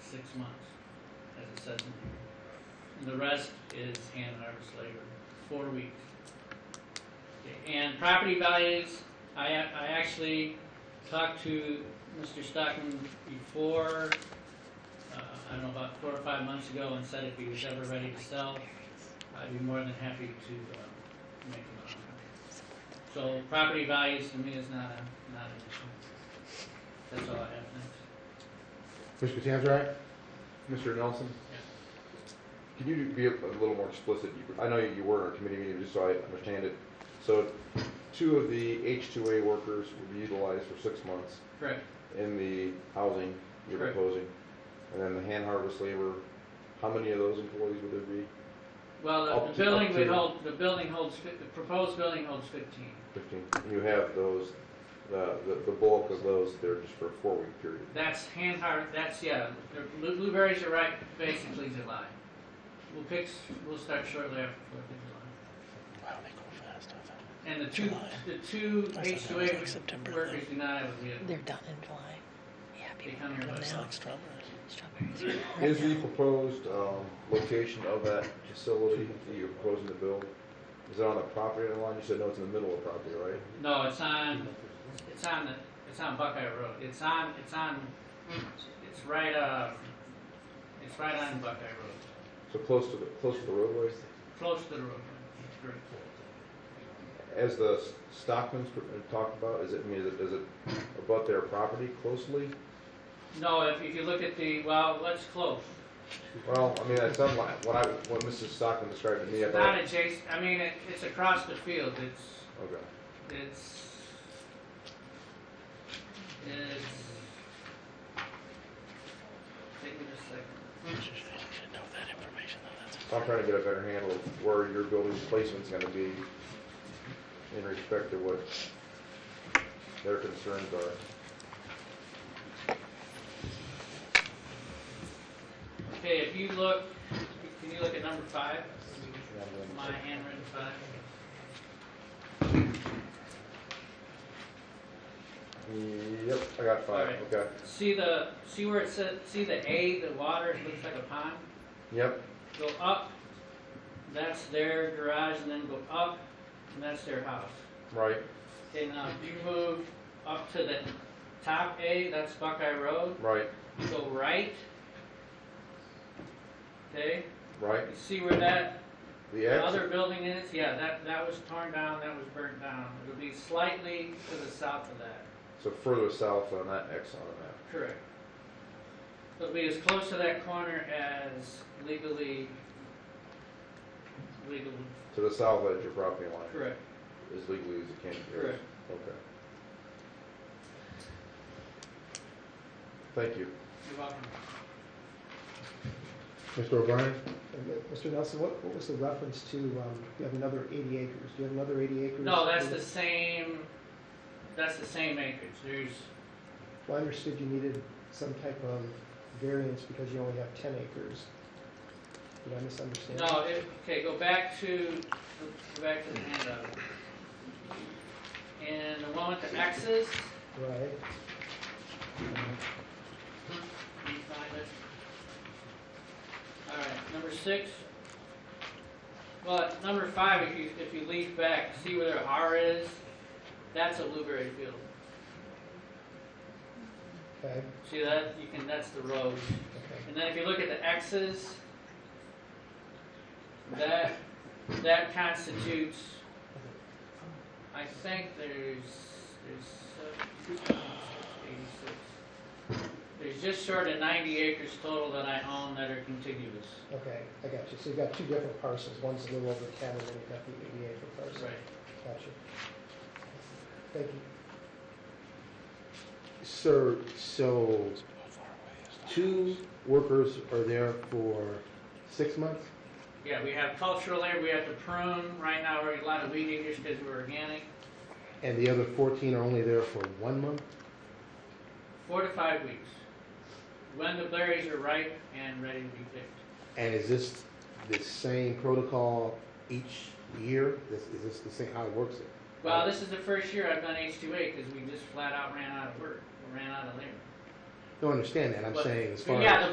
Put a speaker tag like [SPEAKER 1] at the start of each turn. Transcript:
[SPEAKER 1] six months, as it says in here. And The rest is hand harvest labor, four weeks. Okay, And property values, I, ac- I actually talked to Mr. Stockman before, uh, I don't know, about four or five months ago and said if he was ever ready to sell, I'd be more than happy to, uh, make him an offer. So property values to me is not a, not an issue. That's all I have, thanks.
[SPEAKER 2] Mr. Tanzarek? Mr. Nelson?
[SPEAKER 3] Can you be a a little more explicit? You- I know you were in a committee meeting, just so I understand it. So two of the H-2A workers would be utilized for six months
[SPEAKER 1] Correct,
[SPEAKER 3] in the housing you're
[SPEAKER 1] Correct.
[SPEAKER 3] proposing. And then the hand harvest labor, how many of those employees would there be?
[SPEAKER 1] well,
[SPEAKER 3] Up
[SPEAKER 1] the-
[SPEAKER 3] to-
[SPEAKER 1] the building
[SPEAKER 3] up to-
[SPEAKER 1] would hold, the building holds, fif- the proposed building holds fifteen.
[SPEAKER 3] Fifteen. And You have those, the the- the bulk of those, they're just for a four-week period.
[SPEAKER 1] That's hand har, that's, yeah, the blu- blueberries are right basically July. We'll pick, s- we'll start shortly after Fourth of July.
[SPEAKER 4] Wow, they go fast. I thought.
[SPEAKER 1] And the two,
[SPEAKER 4] July.
[SPEAKER 1] the two
[SPEAKER 4] I
[SPEAKER 1] H
[SPEAKER 4] thought
[SPEAKER 1] two
[SPEAKER 4] that was like September,
[SPEAKER 1] A workers do not have a
[SPEAKER 5] They're
[SPEAKER 1] vehicle.
[SPEAKER 5] done in July. Yeah,
[SPEAKER 1] They
[SPEAKER 5] people
[SPEAKER 1] come
[SPEAKER 5] are
[SPEAKER 1] here
[SPEAKER 5] done
[SPEAKER 1] by
[SPEAKER 4] It's
[SPEAKER 5] now.
[SPEAKER 4] like strawberries.
[SPEAKER 5] Strawberries. are
[SPEAKER 3] Is
[SPEAKER 5] right
[SPEAKER 3] the
[SPEAKER 5] now.
[SPEAKER 3] proposed um, location of that facility that you're proposing to build, is it on the property line? You said no, it's in the middle of the property, right?
[SPEAKER 1] No, it's on, it's on the, it's on Buckeye Road. It's on, it's on, it's right, uh, it's right on Buckeye Road,
[SPEAKER 3] So close to the, close to the roadway?
[SPEAKER 1] close to the road. That's correct.
[SPEAKER 3] As the S- Stockman's pr- uh, talked about, is it, I mean, is it, is it abut their property closely?
[SPEAKER 1] No, if, if you look at the, well, let's close.
[SPEAKER 3] Well, I mean, that's not what what I, what Mrs. Stockman described to me, I
[SPEAKER 1] Not
[SPEAKER 3] thought,
[SPEAKER 1] adjacent, I mean, it, it's across the field. It's,
[SPEAKER 3] okay.
[SPEAKER 1] It's it's take me just a second.
[SPEAKER 4] You should, you should know that information though. That's
[SPEAKER 3] I'm trying to get a better handle of where your building placement's gonna be in respect to what their concerns are.
[SPEAKER 1] Okay, if you look, can you look at number five? My handwritten five.
[SPEAKER 3] Yep, I got five,
[SPEAKER 1] Alright.
[SPEAKER 3] okay.
[SPEAKER 1] See the see where it says see the A, the water it looks like a pond.
[SPEAKER 3] Yep,
[SPEAKER 1] Go up, that's their garage, and then go up, and that's their house.
[SPEAKER 3] right,
[SPEAKER 1] Okay, now if uh, you move up to the top A, that's Buckeye Road.
[SPEAKER 3] right,
[SPEAKER 1] Go right. Okay.
[SPEAKER 3] right.
[SPEAKER 1] You see where that
[SPEAKER 3] The
[SPEAKER 1] other
[SPEAKER 3] exit,
[SPEAKER 1] building is? Yeah, that, that was torn down, that was burnt down. It'll be slightly to the south of that,
[SPEAKER 3] so further south on that X on the map.
[SPEAKER 1] correct. It'll be as close to that corner as legally, legally,
[SPEAKER 3] To the south edge of your property line,
[SPEAKER 1] correct,
[SPEAKER 3] as legally as it can be.
[SPEAKER 1] correct.
[SPEAKER 3] Okay. Thank you.
[SPEAKER 1] You're welcome.
[SPEAKER 2] Mr. O'Brien?
[SPEAKER 6] And then, Mr. Nelson, what, what was the reference to, um, you have another eighty acres, do you have another eighty acres?
[SPEAKER 1] No, that's the same, that's the same acreage. There's,
[SPEAKER 6] Well, I understood you needed some type of variance because you only have ten acres. Did I misunderstand?
[SPEAKER 1] No, it, okay, go back to, go back to the handout. And the one with the X's,
[SPEAKER 6] Right,
[SPEAKER 1] can you find it? All right, number six. Well, at number five, if you, if you leaf back, see where their R is, that's a blueberry field.
[SPEAKER 6] okay,
[SPEAKER 1] See that, you can, that's the road.
[SPEAKER 6] okay.
[SPEAKER 1] And then if you look at the X's, that, that constitutes, I think there's, there's seven- 86. There's just short of 90 acres total that I own that are contiguous.
[SPEAKER 6] Okay, I got you, so you've got two different parcels, one's a little over ten, and then you've got the eighty acre parcel.
[SPEAKER 1] Right.
[SPEAKER 6] Got you. Thank you.
[SPEAKER 2] Sir, so
[SPEAKER 4] how far away is that?
[SPEAKER 2] two workers are there for six months?
[SPEAKER 1] Yeah, we have cultural labor, we have to prune. Right now, we're a lot of weed eaters because we're organic.
[SPEAKER 2] And the other 14 are only there for one month?
[SPEAKER 1] Four to five weeks. When the berries are ripe and ready to be picked.
[SPEAKER 2] And is this the same protocol each year? Is is this the same, how it works?
[SPEAKER 1] Well, this is the first year I've done H2A because we just flat out ran out of work, ran out of labor.
[SPEAKER 2] No, I understand that, I'm
[SPEAKER 1] But-
[SPEAKER 2] saying as far as...
[SPEAKER 1] Yeah, the